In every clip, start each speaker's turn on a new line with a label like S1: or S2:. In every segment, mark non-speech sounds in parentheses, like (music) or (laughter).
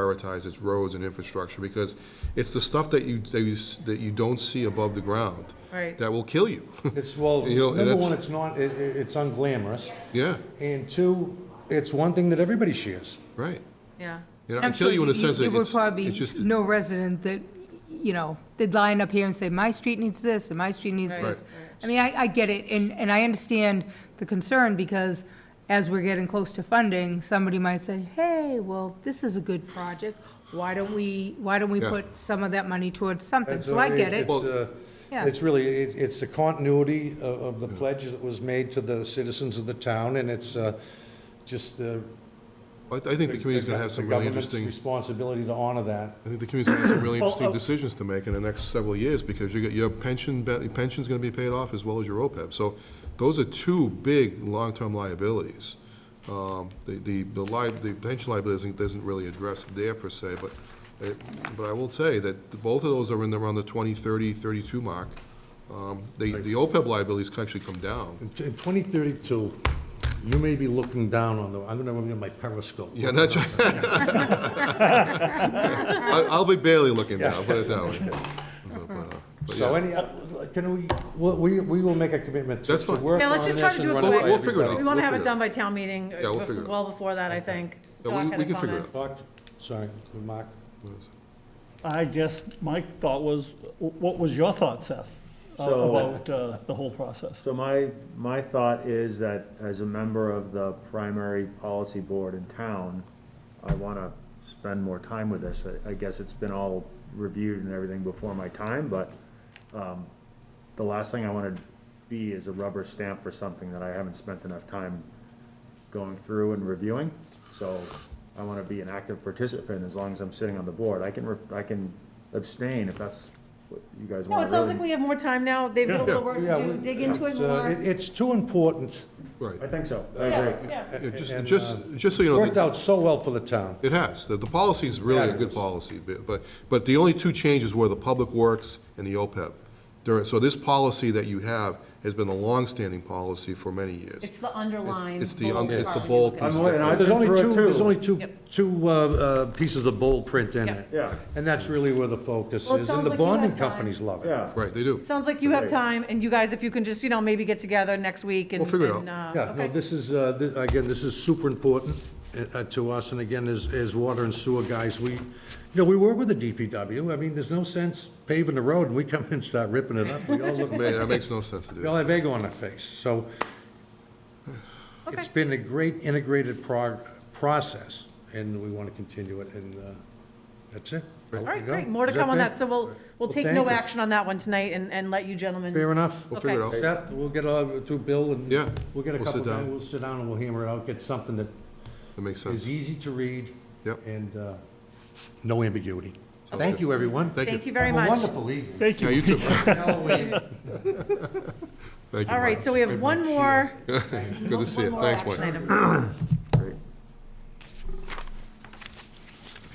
S1: prioritize its roads and infrastructure, because it's the stuff that you, that you, s- that you don't see above the ground.
S2: Right.
S1: That will kill you, (laughs)
S3: It's, well,
S1: You know, and
S3: number
S1: that's-
S3: one, it's not, it, it- it's unglamorous,
S1: yeah,
S3: and two, it's one thing that everybody shares.
S1: right.
S2: yeah.
S1: You know, I kill you in a sense that
S4: There would
S1: it's,
S4: probably
S1: it's just,
S4: be no resident that, you know, they'd line up here and say, my street needs this, and my street needs
S2: Right.
S4: this.
S2: Right.
S4: I mean, I, I get it, and, and I understand the concern, because as we're getting close to funding, somebody might say, hey, well, this is a good project, why don't we, why don't we
S1: Yeah.
S4: put some of that money towards something?
S3: That's
S4: So I
S3: a-
S4: get it,
S3: It's, uh,
S4: Yeah.
S3: it's really, it- it's the continuity of, of the pledge that was made to the citizens of the town, and it's, uh, just the.
S1: I, I think the community's gonna have some really
S3: government's
S1: interesting,
S3: Responsibility to honor that.
S1: I think the community's gonna have some really interesting decisions to make in the next several years, because you got, your pension, be- pension's gonna be paid off as well as your OPEB. So those are two big long-term liabilities. Um, the, the, the li, the pension liability doesn't, doesn't really address there per se, but, it- but I will say that the- both of those are in the, around the 20, 30, 32 mark. Um, the, the OPEB liabilities can actually come down.
S3: (laughs) In t- in 2032, you may be looking down on the, I'm gonna remember my periscope.
S1: Yeah, that's, (laughs) I, I'll be barely looking down, put it that way. So, but, uh, but
S3: So
S1: yeah.
S3: any, uh, can we, we'll- we, we will make a commitment to
S1: That's
S3: to
S1: fine.
S3: work
S2: Yeah,
S3: on
S2: let's
S3: this
S2: just try to
S3: and
S2: do it
S3: run
S2: quick.
S3: by
S2: We'll
S1: figure it
S3: everybody.
S1: out.
S2: We want to
S1: We'll
S2: have
S1: figure it
S2: it done by town meeting,
S1: Yeah, we'll figure it out.
S2: well before that, I think.
S1: Yeah,
S2: Doc
S1: we-
S2: had
S1: we
S2: a
S1: can figure it
S2: comment.
S3: Thought- Sorry, Mark.
S5: I guess my thought was, what was your thought, Seth, uh,
S6: So-
S5: about uh, the whole process?
S6: So my, my thought is that as a member of the primary policy board in town, I wanna spend more time with this. I- I guess it's been all reviewed and everything before my time, but, um, the last thing I wanna be is a rubber stamp for something that I haven't spent enough time going through and reviewing. So I wanna be an active participant as long as I'm sitting on the board. I can, re- I can abstain if that's what you guys
S2: No,
S6: wanna
S2: it
S6: really.
S2: sounds like we have more time now. They've got a little work
S3: Oh, Yeah,
S2: to do,
S3: we-
S2: dig into it
S3: it's, uh,
S2: more.
S3: it- It's too important.
S1: Right.
S6: I think so. I agree.
S2: Yeah, yeah.
S1: Yeah, just,
S3: And, uh,
S1: just, just so you know,
S3: Worked
S1: the-
S3: out so well for the town.
S1: it has. The, the policy is really a good
S3: Fabulous.
S1: policy, bu- but, but the only two changes were the Public Works and the OPEB. There, are- so this policy that you have has been a longstanding policy for many years.
S2: It's the underlying.
S1: it's the un-
S2: bold
S1: it's the
S2: part.
S1: bold
S6: I'm aware, and I-
S3: There's only
S6: Through it,
S3: two, there's
S6: too.
S3: only two,
S2: Yep.
S3: two uh, uh, pieces of bold print in
S2: Yep.
S3: it.
S6: Yeah.
S3: And that's really where the focus
S2: Well, it
S3: is,
S2: sounds
S3: and the
S2: like you had
S3: bonding
S2: time.
S3: companies love it.
S6: Yeah.
S1: Right, they do.
S2: Sounds like you have time, and you guys, if you can just, you know, maybe get together next week and.
S1: We'll figure it
S2: and, uh,
S3: Yeah, no,
S2: okay.
S3: this is, uh, th- again, this is super important uh, to us, and again, as, as water and sewer guys, we, you know, we work with the DPW, I mean, there's no sense paving the road, and we come in and start ripping it up, we all look,
S1: Man, that makes no sense to
S3: we
S1: do.
S3: all have egg on our face, so it's
S2: Okay.
S3: been a great integrated prog, process, and we want to continue it, and uh, that's it. I'll
S2: All
S3: let
S2: right,
S3: you go.
S2: great. More to
S3: Is that
S2: come on
S3: fair?
S2: that, so we'll, we'll
S3: Well,
S2: take
S3: thank
S2: no
S3: you.
S2: action on that one tonight and, and let you gentlemen.
S3: Fair enough.
S1: We'll figure it
S2: Okay.
S1: out.
S3: Seth, we'll get, uh, to Bill, and
S1: Yeah,
S3: we'll get a
S1: we'll
S3: couple,
S1: sit down.
S3: guys, we'll sit down and we'll hammer it out, get something that
S1: That makes sense.
S3: is easy to read.
S1: Yep.
S3: And uh, no ambiguity. Thank you, everyone.
S1: Thank
S2: Thank
S1: you.
S2: you very
S3: Have a
S2: much.
S3: wonderful evening.
S5: Thank
S1: Yeah,
S5: you.
S1: you too.
S3: Halloween.
S1: Thank you.
S2: All right,
S1: Mark.
S2: so we have one more.
S1: Good to see you.
S2: one more
S1: Thanks,
S2: action
S1: Mike.
S2: item.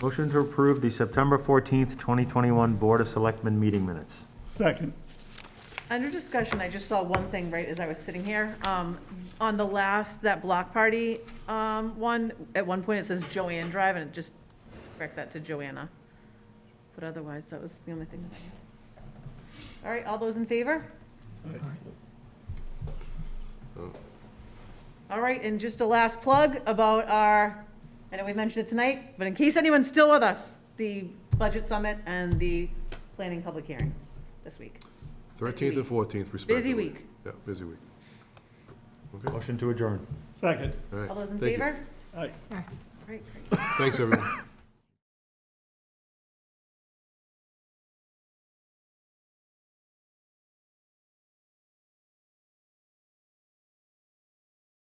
S6: Motion to approve the September 14th, 2021 Board of Selectmen meeting minutes.
S5: (laughs) Second.
S2: Under discussion, I just saw one thing right as I was sitting here. Um, on the last, that block party, um, one, at one point it says Joanne Drive and it just correct that to Joanna. But otherwise, that was the only thing that I had. All right, all those in favor? All right, and just a last plug about our, I know we mentioned it tonight, but in case anyone's still with us, the budget summit and the planning public hearing this week.
S1: Thirteenth and fourteenth respectively.
S2: week.
S1: Yeah, busy week.
S6: Motion to adjourn.
S5: Second.
S1: right,
S2: All those in
S1: thank you.
S2: favor?
S5: Aye.
S2: Great, great.
S1: Thanks, everyone.